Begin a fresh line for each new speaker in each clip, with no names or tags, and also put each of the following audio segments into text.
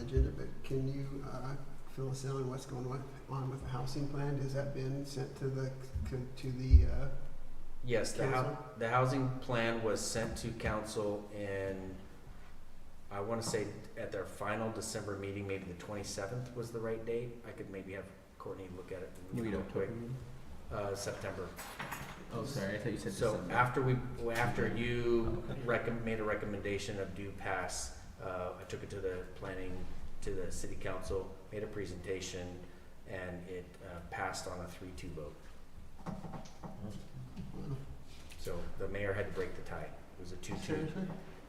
agenda, but can you uh, fill us in on what's going on- on with the housing plan? Has that been sent to the, to the uh,
Yes, the
council?
hou- the housing plan was sent to council in, I wanna say at their final December meeting, maybe the twenty-seventh was the right date. I could maybe have Courtney look at it real quick. Uh, September.
Oh, sorry, I thought you said
So
December.
after we, after you
Okay.
recom made a recommendation of do pass, uh, I took it to the planning, to the city council, made a presentation, and it, uh, passed on a three-two vote. So the mayor had to break the tie. It was a two-two.
Seriously?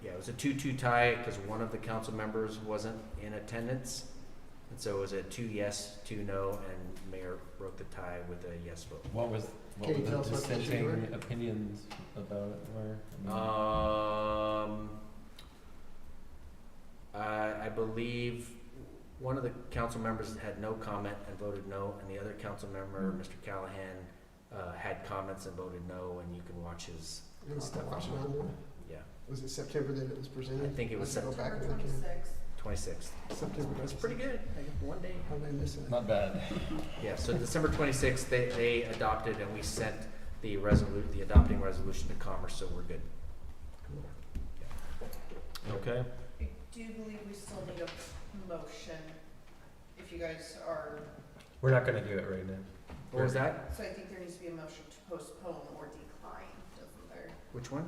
Yeah, it was a two-two tie because one of the council members wasn't in attendance. And so it was a two yes, two no, and mayor broke the tie with a yes vote.
What was,
Can
what
you
were the
tell us what the issues
dissenting opinions about it were? I mean,
Um, I, I believe one of the council members had no comment and voted no, and the other council member,
Hmm.
Mr. Callahan, uh, had comments and vovoted no, and you can watch his,
You know,
Stuff
watch
on-
it on there?
yeah,
Was it September that it was presented?
I think it was
Let's go back and look at
twenty-sixth.
twenty-sixth.
it. September.
That's pretty good, I got one day.
How did I miss it?
Not bad.
Yeah, so December twenty-sixth, they, they adopted and we sent the resolu, the adopting resolution to commerce, so we're good.
Okay.
I do believe we still need a motion, if you guys are,
We're not gonna do it right now.
What was that?
so I think there needs to be a motion to postpone or decline, doesn't there?
Which one?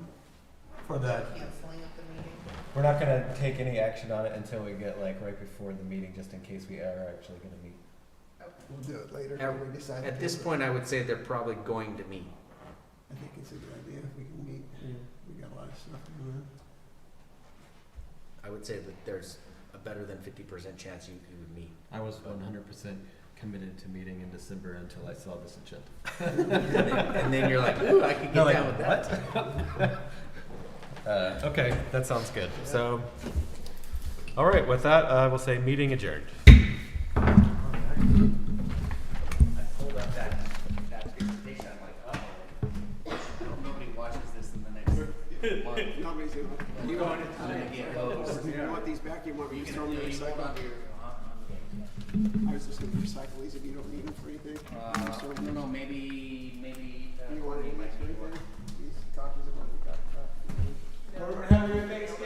For the,
Canceling of the meeting.
we're not gonna take any action on it until we get like right before the meeting, just in case we are actually gonna meet.
We'll do it later
At-
when we decide. to
At
do
this
it.
point, I would say they're probably going to meet.
I think it's a good idea if we can meet. We got a lot of stuff going on.
I would say that there's a better than fifty percent chance you, you would meet.
I was one hundred percent committed to meeting in December until I saw this agenda.
And then, and then you're like, ooh, I could get
No, like,
down with that.
Uh, okay, that sounds good. So,
All right, with that, I will say meeting adjourned.
I pulled up that, that presentation, I'm like, oh, nobody watches this in the next month.
Nobody's gonna-
You want it to get hosed.
Do you want these back? You want me to throw them in the recycle? I was just gonna recycle these if you don't need them for anything. You
Uh,
throw
no,
them
no, maybe, maybe. uh,
in. You want any of these right there? These copies of what we got.
No.
We're having a Thanksgiving